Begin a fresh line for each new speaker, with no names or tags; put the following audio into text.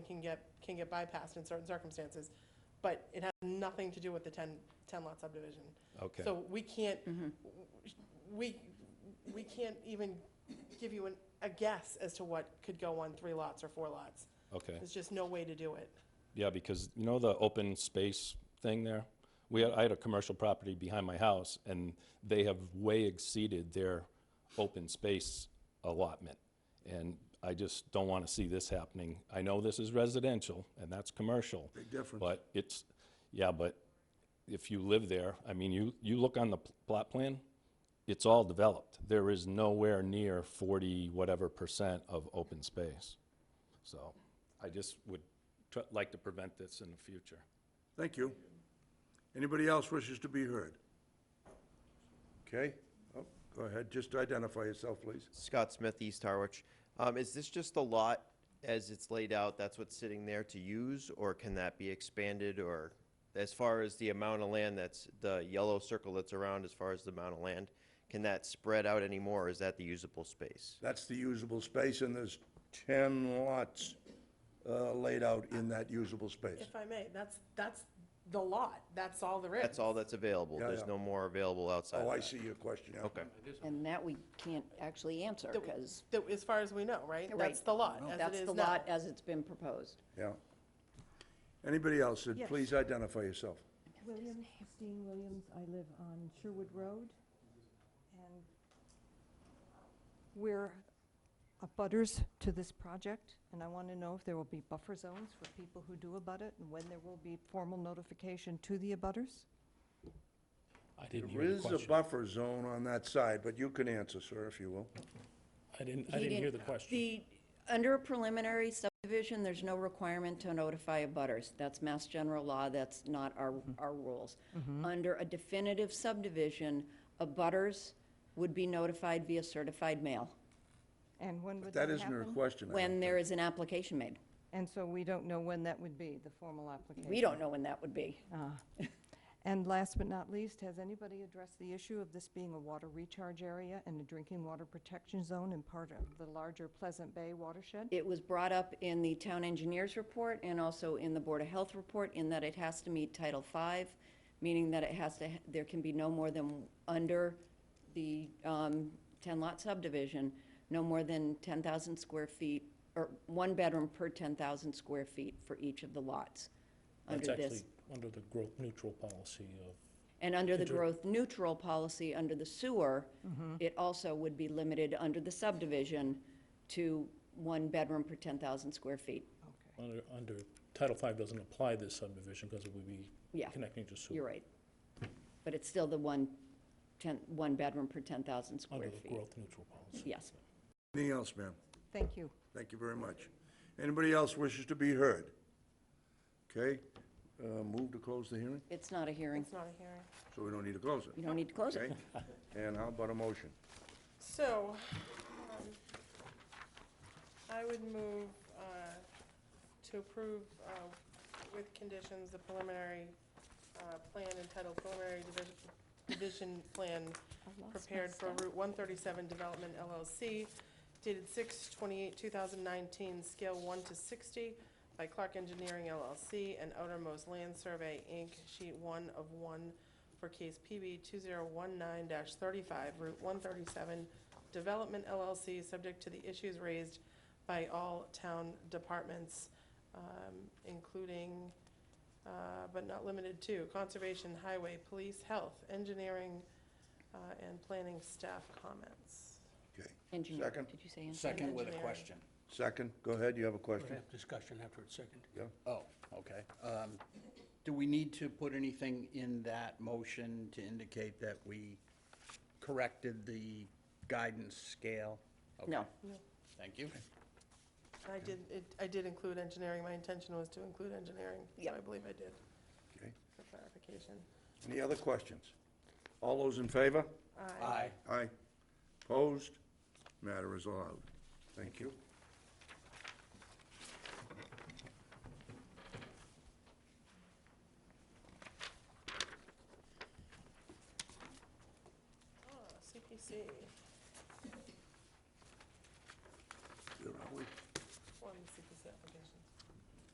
can get, can get bypassed in certain circumstances, but it has nothing to do with the 10, 10 lot subdivision.
Okay.
So we can't,
Mm-hmm.
we, we can't even give you an, a guess as to what could go on three lots or four lots.
Okay.
There's just no way to do it.
Yeah, because you know the open space thing there? We had, I had a commercial property behind my house and they have way exceeded their open space allotment. And I just don't want to see this happening. I know this is residential and that's commercial. Big difference. But it's, yeah, but if you live there, I mean, you, you look on the pl- plot plan, it's all developed. There is nowhere near 40 whatever percent of open space. So I just would tr- like to prevent this in the future.
Thank you. Anybody else wishes to be heard? Okay, Oh, go ahead, just identify yourself, please.
Scott Smith, East Harwich. Um, is this just the lot as it's laid out, that's what's sitting there to use, or can that be expanded, or as far as the amount of land that's, the yellow circle that's around, as far as the amount of land, can that spread out anymore, or is that the usable space?
That's the usable space, and there's 10 lots uh, laid out in that usable space.
If I may, that's, that's the lot. That's all there is.
That's all that's available,
Yeah,
there's
yeah.
no more available outside
Oh, I
of that?
see your question now.
Okay,
And that we can't actually answer, because
That- As far as we know, right? That's
Right.
the lot, as
that's
it
the
is now.
lot as it's been proposed.
Yeah. Anybody else, Uh, please identify yourself.
Williams, Christine Williams. I live on Sherwood Road. And we're abutters to this project, and I want to know if there will be buffer zones for people who do abut it, and when there will be formal notification to the abutters?
I didn't
There
hear the
is a
question.
buffer zone on that side, but you can answer, sir, if you will.
I didn't, I didn't hear the question.
The, under a preliminary subdivision, there's no requirement to notify abutters. That's Mass General law, that's not our, our rules. Under a definitive subdivision, abutters would be notified via certified mail
And when would
That
that
isn't her
happen?
question. I
when
don't
there is an application made.
And so we don't know when that would be, the formal application. Uh,
We don't know when that would be.
And last but not least, has anybody addressed the issue of this being a water recharge area and a drinking water protection zone and part of the larger Pleasant Bay watershed?
It was brought up in the town engineer's report and also in the Board of Health report in that it has to meet Title V, meaning that it has to, ha- there can be no more than, under the um, 10-lot subdivision, no more than 10,000 square feet, or one bedroom per 10,000 square feet for each of the lots
That's
under
actually
this.
under the growth neutral policy of,
And under the growth neutral policy, under the sewer, it also would be limited under the subdivision to one bedroom per 10,000 square feet.
under, under, Title V doesn't apply this subdivision because it would be
Yeah,
connecting to sewer.
You're right. But it's still the one, ten, one bedroom per 10,000
Under
square
the
feet.
growth neutral policy.
Yes.
Anything else, ma'am?
Thank you.
Thank you very much. Anybody else wishes to be heard? Okay, uh, move to close the hearing,
It's not a hearing.
It's not a hearing.
so we don't need to close
You
it,
don't need to close
okay?
it.
And how about a motion?
So, um, I would move uh, to approve uh, with conditions the preliminary uh, plan entitled preliminary division, division plan prepared for Route 137 Development LLC dated 6/28/2019, scale 1 to 60 by Clark Engineering LLC and Outermost Land Survey, Inc., sheet 1 of 1 for case PB 2019-35, Route 137 Development LLC, subject to the issues raised by all town departments, um, including, uh, but not limited to, conservation, highway, police, health, engineering, uh, and planning staff comments.
Okay,
Engineer,
Second.
did you say engineer?
Second with a
Engineering.
question.
second, go ahead, you have a
We
question?
have discussion after it's second.
Yeah.
Oh, okay. Um, Do we need to put anything in that motion to indicate that we corrected the guidance scale? Okay.
No.
Thank you.
I did, it- I did include engineering, my intention was to include engineering, so I
Yep.
believe I did,
Okay.
for clarification.
Any other questions? All those in favor?
Aye.
Aye. Opposed? Matter is allowed. Thank you.
Ah, CPC,
Where are we?
one CPC application.